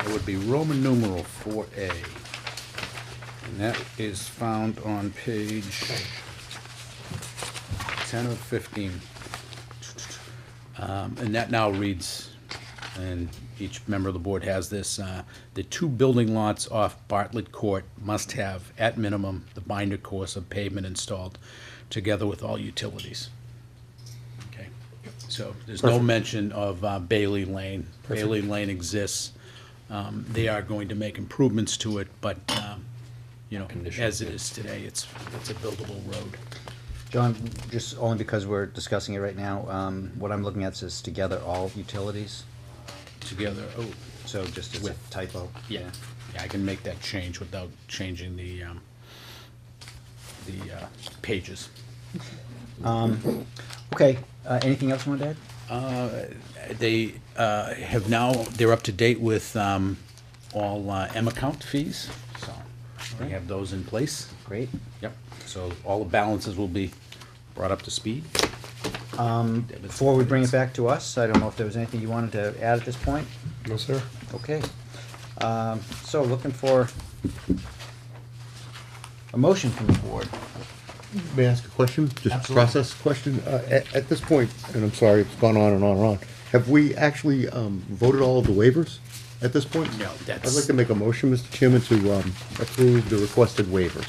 It would be Roman numeral four A. And that is found on page ten of fifteen. Um, and that now reads, and each member of the board has this, uh, the two building lots off Bartlett Court must have, at minimum, the binder course of pavement installed, together with all utilities. Okay, so there's no Perfect. mention of uh, Bailey Lane. Perfect. Bailey Lane exists. Um, They are going to make improvements to it, but, um, you know, as it is today, it's, it's a buildable road. John, just only because we're discussing it right now, um, what I'm looking at says together all utilities, Together, oh, so just as a With- typo. Yeah, yeah, I can make that change without changing the, um, the, uh, pages. Okay, uh, anything else you wanted to add? They, uh, have now, they're up to date with, um, all, uh, M account fees, so they have those in place. Great. Yep, so all the balances will be brought up to speed. Um, Before we bring it back to us, I don't know if there was anything you wanted to add at this point? No, sir. Okay. Um, so looking for a motion from the board. May I ask a question? Just a Absolutely. process question. Uh, at, at this point, and I'm sorry, it's gone on and on and on, have we actually, um, voted all of the waivers at this point? No, I'd like that's, to make a motion, Mr. Chairman, to, um, approve the requested waiver.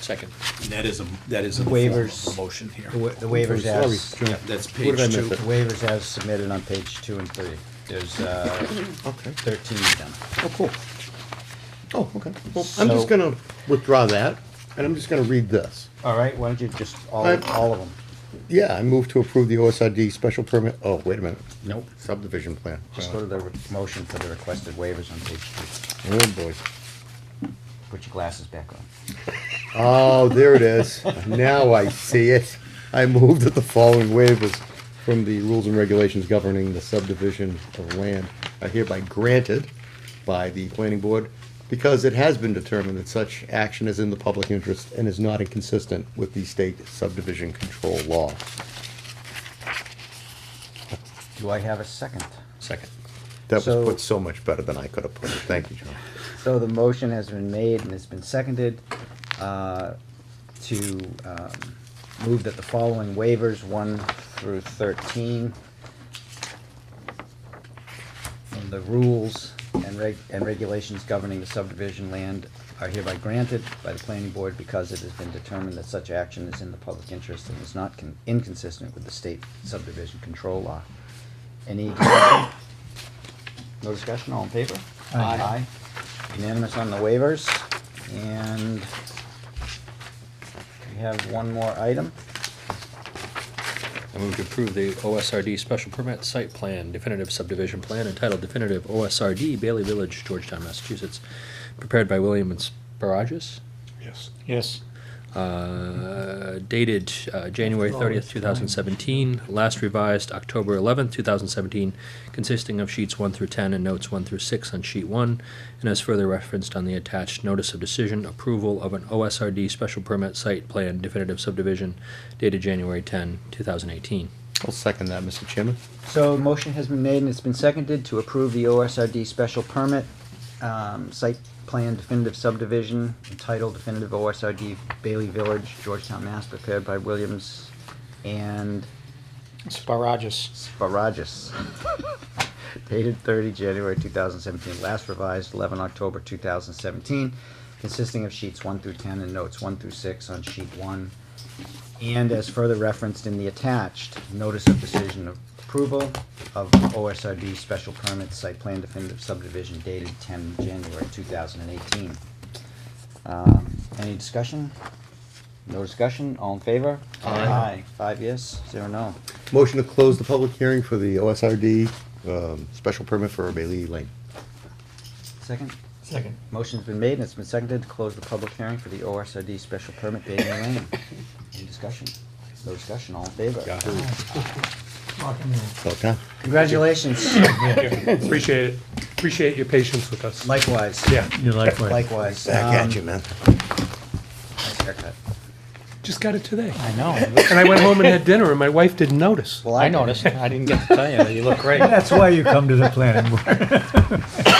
Second. that is a, that is a form of a Waivers. motion here. The wa- the waivers Sorry, as, John. Yep, that's Where did I page miss two. it? waivers as submitted on page two and three. There's, uh, Okay. thirteen of them. Oh, cool. Oh, okay. Well, I'm just So- gonna withdraw that, and I'm just gonna read this. All right, why don't you just, all, I'm- all of them? Yeah, I move to approve the OSRD special permit, oh, wait a minute, Nope. subdivision plan. Just go to the re- motion for the requested waivers on page two. Oh, boy. Put your glasses back on. Oh, there it is. Now I see it. I moved that the following waivers from the rules and regulations governing the subdivision of land are hereby granted by the planning board because it has been determined that such action is in the public interest and is not inconsistent with the state subdivision control law. Do I have a second? Second. That was So- put so much better than I could have put it. Thank you, John. So the motion has been made and it's been seconded uh, to um, move that the following waivers, one through thirteen, from the rules and reg, and regulations governing the subdivision land are hereby granted by the planning board because it has been determined that such action is in the public interest and is not con- inconsistent with the state subdivision control law. Any discussion? No discussion, all in favor? Aye. Unanimous on the waivers, and we have one more item. I move to approve the OSRD special permit site plan definitive subdivision plan entitled definitive OSRD Bailey Village, Georgetown, Massachusetts, prepared by William and Sparagus, Yes. Yes. uh, dated uh, January thirtieth, two thousand seventeen, last revised October eleventh, two thousand seventeen, consisting of sheets one through ten and notes one through six on sheet one, and as further referenced on the attached notice of decision, approval of an OSRD special permit site plan definitive subdivision dated January 10, 2018. I'll second that, Mr. Chairman. So motion has been made and it's been seconded to approve the OSRD special permit, um, site plan definitive subdivision entitled definitive OSRD Bailey Village, Georgetown, Mass, prepared by Williams and Sparagus. Sparagus. Dated thirty January two thousand seventeen, last revised eleven October two thousand seventeen, consisting of sheets one through ten and notes one through six on sheet one. And as further referenced in the attached, notice of decision of approval of OSRD special permit site plan definitive subdivision dated ten January two thousand and eighteen. Um, Any discussion? No discussion, all in favor? Aye. Five yes, zero no. Motion to close the public hearing for the OSRD, um, special permit for Bailey Lane. Second? Second. Motion's been made and it's been seconded to close the public hearing for the OSRD special permit Bailey Lane. Any discussion? No discussion, all in favor? About time. Congratulations, Appreciate it. Appreciate your patience with us. likewise, Yeah, You like what? likewise. Back at you, Um, man. nice haircut. just got it today. I know. And I went home and had dinner and my wife didn't notice. Well, I did. noticed. I didn't get to tell you. You look great. That's why you come to the planning board.